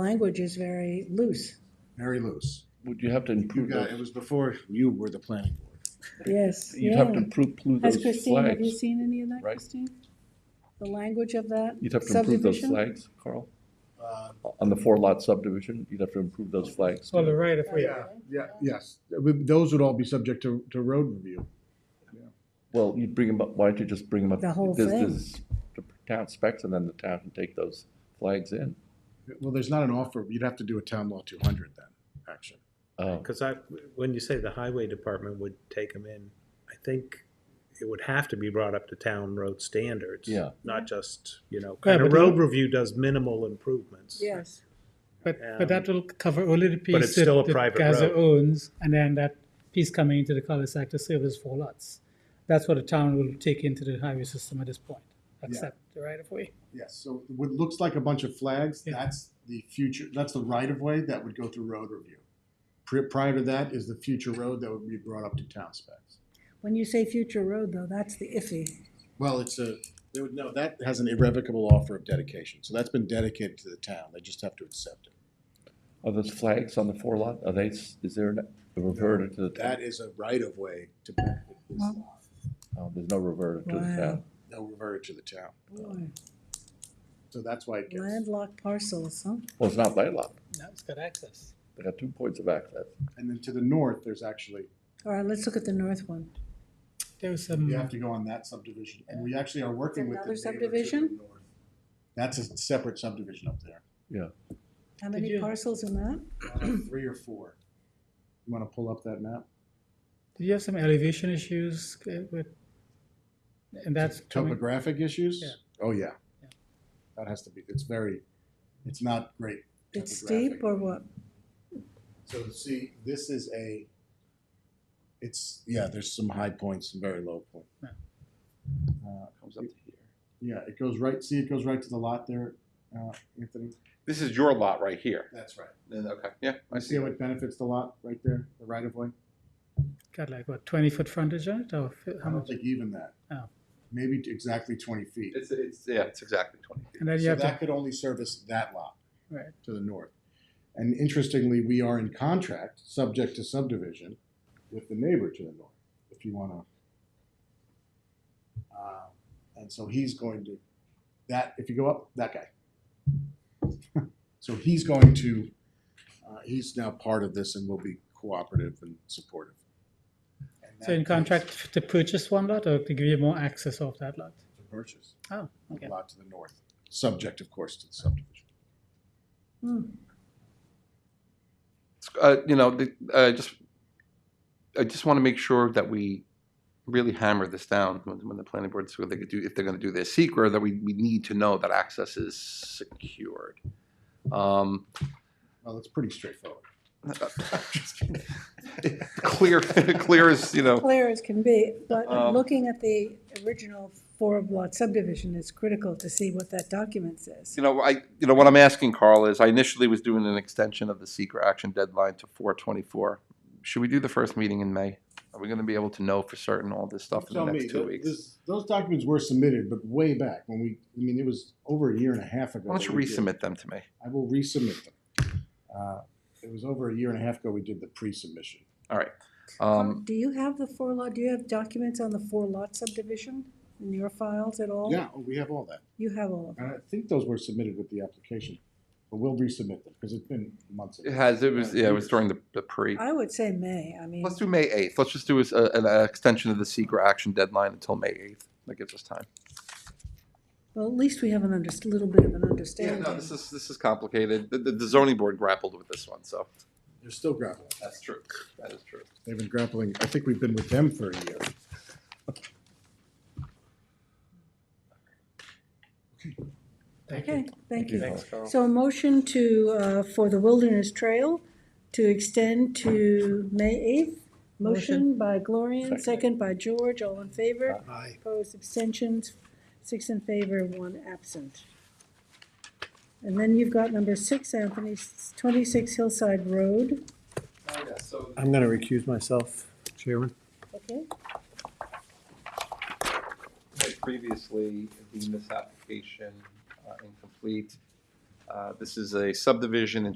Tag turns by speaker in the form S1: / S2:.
S1: language is very loose,
S2: very loose.
S3: Would you have to
S2: You
S3: improve
S2: got, it
S3: those,
S2: was before you were the planning board.
S1: yes.
S3: you'd have to
S1: yeah.
S3: improve, improve
S4: Has
S3: those
S4: Christine, have you
S3: flags?
S4: seen any of that,
S3: right?
S4: Christine?
S1: The language of that
S3: You'd have to improve those
S1: subdivision.
S3: flags, Carl?
S2: Uh,
S3: On the four lot subdivision, you'd have to improve those flags.
S5: On the right of way.
S2: Oh, Yeah, yeah, yes, That would- those would all be subject to, to road review.
S3: Well, you'd bring them up, why don't you just bring them up?
S1: The whole
S3: There's-
S1: thing.
S3: there's The town specs and then the town can take those flags in.
S2: Well, there's not an offer, you'd have to do a town law two hundred then, action.
S3: Oh,
S5: Because I, when you say the highway department would take them in, I think it would have to be brought up to town road standards.
S3: Yeah.
S5: Not just, you know,
S6: Yeah,
S5: kind of
S6: but
S5: road review does minimal improvements.
S1: Yes,
S6: But,
S5: Um,
S6: but that will cover only the piece
S5: it's still a
S6: that, that
S5: private
S6: Gaza
S5: road.
S6: owns, and then that piece coming into the cul-de-sac to serve as four lots. That's what the town will take into the highway system at this point, except the right of way.
S2: Yes, so what looks like a bunch of flags,
S6: Yeah.
S2: that's the future, that's the right of way that would go through road review. Pri- Prior to that is the future road that would be brought up to town specs.
S1: when you say future road though, that's the iffy.
S2: Well, it's a, they would know, that has an irrevocable offer of dedication, so that's been dedicated to the town, they just have to accept it.
S3: are those flags on the four lot, are they, s- is there an- a reverter to the town?
S2: That is a right of way to back this law,
S3: Oh, There's no reverter to the
S1: Wow.
S3: town.
S2: no revert to the town,
S1: Boy,
S2: so that's why it gets.
S1: landlocked parcels, huh?
S3: Well, it's not landlocked,
S6: Now it's got access.
S3: they got two points of access.
S2: And then to the north, there's actually,
S1: All right, let's look at the north one.
S6: There was some.
S2: you have to go on that subdivision, and we actually are working with the
S1: Another
S2: neighbor to the
S1: subdivision?
S2: north. That's a separate subdivision up there,
S1: How
S6: Did
S1: many
S6: you-
S1: parcels in that?
S2: uh, three or four. You wanna pull up that map?
S6: Did you have some elevation issues uh, with? And that's coming.
S2: Topographic issues?
S6: Yeah.
S2: Oh, yeah.
S6: Yeah.
S2: That has to be, it's very, it's not great.
S1: It's
S2: topographic.
S1: steep or what?
S2: So see, this is a, it's, yeah, there's some high points and very low point.
S6: Yeah.
S2: Uh,
S3: Comes up to here.
S2: Yeah, it goes right, see, it goes right to the lot there, uh, Anthony?
S7: This is your lot right here.
S2: That's right.
S7: Then, Okay, yeah, I
S2: I see
S7: see.
S2: how it benefits the lot right there, the right of way?
S6: Got like what twenty foot frontage on it, or fi-
S2: I
S6: how
S2: don't
S6: much?
S2: think even that.
S6: Oh.
S2: Maybe t- exactly twenty feet.
S7: It's, it's, yeah, it's exactly twenty feet.
S6: And then you
S2: So
S6: have
S2: that
S6: to,
S2: could only service that lot
S6: right,
S2: to the north. And interestingly, we are in contract, subject to subdivision, with the neighbor to the north, if you wanna. Uh, And so he's going to, that, if you go up, that guy. So he's going to, uh, he's now part of this and will be cooperative and supportive. And
S6: so in
S2: that
S6: contract to purchase one lot or to give you more access of that lot?
S2: is the Purchase.
S6: Oh, okay.
S2: a lot to the north, subject, of course, to the subdivision.
S7: Uh, you know, the, I just, I just want to make sure that we really hammer this down when, when the planning board's, when they could do, if they're going to do their secret, that we, we need to know that access is secured. Um,
S2: Well, it's pretty straightforward.
S7: clear, clear as, you know,
S1: Clear as can be, but
S7: Um,
S1: looking at the original four lot subdivision is critical to see what that document says.
S7: You know, I, you know, what I'm asking, Carl, is I initially was doing an extension of the secret action deadline to four twenty-four. Should we do the first meeting in May? Are we gonna be able to know for certain all this stuff in the
S2: Tell me,
S7: next two
S2: th-
S7: weeks?
S2: this- Those documents were submitted, but way back when we, I mean, it was over a year and a half ago.
S7: Why don't
S2: that
S7: you
S2: we did-
S7: resubmit them to me?
S2: I will resubmit them. Uh, It was over a year and a half ago we did the pre-submission.
S7: All right. Um,
S1: Do you have the four lot, do you have documents on the four lot subdivision in your files at all?
S2: Yeah, oh, we have all that.
S1: You have all of them.
S2: And I think those were submitted with the application, but we'll resubmit them because it's been months.
S7: it has, it was, yeah, it was during the, the pre.
S1: I would say May, I mean.
S7: Let's do May eighth. Let's just do a, an uh, extension of the secret action deadline until May eighth. That gives us time.
S1: Well, at least we have an under, little bit of an
S7: Yeah,
S1: understanding.
S7: no, this is, this is complicated. The, the- the zoning board grappled with this one, so.
S2: They're still grappling.
S7: That's true. That is true.
S2: They've been grappling, I think we've been with them for a year.
S6: Thank you.
S1: Okay, thank you.
S3: Thanks,
S7: Carl.
S1: So a motion to, uh, for the Wilderness Trail to extend to May eighth. Motion by Gloria,
S3: Second.
S1: second by George, all in favor. Aye. Opposed, abstentions, six in favor, one absent. And then you've got number six, Anthony, s- twenty-six Hillside Road,
S7: Oh,
S5: I'm going to recuse myself, Chairman.
S1: okay?
S7: had previously deemed this application uh, incomplete. Uh, This is a subdivision in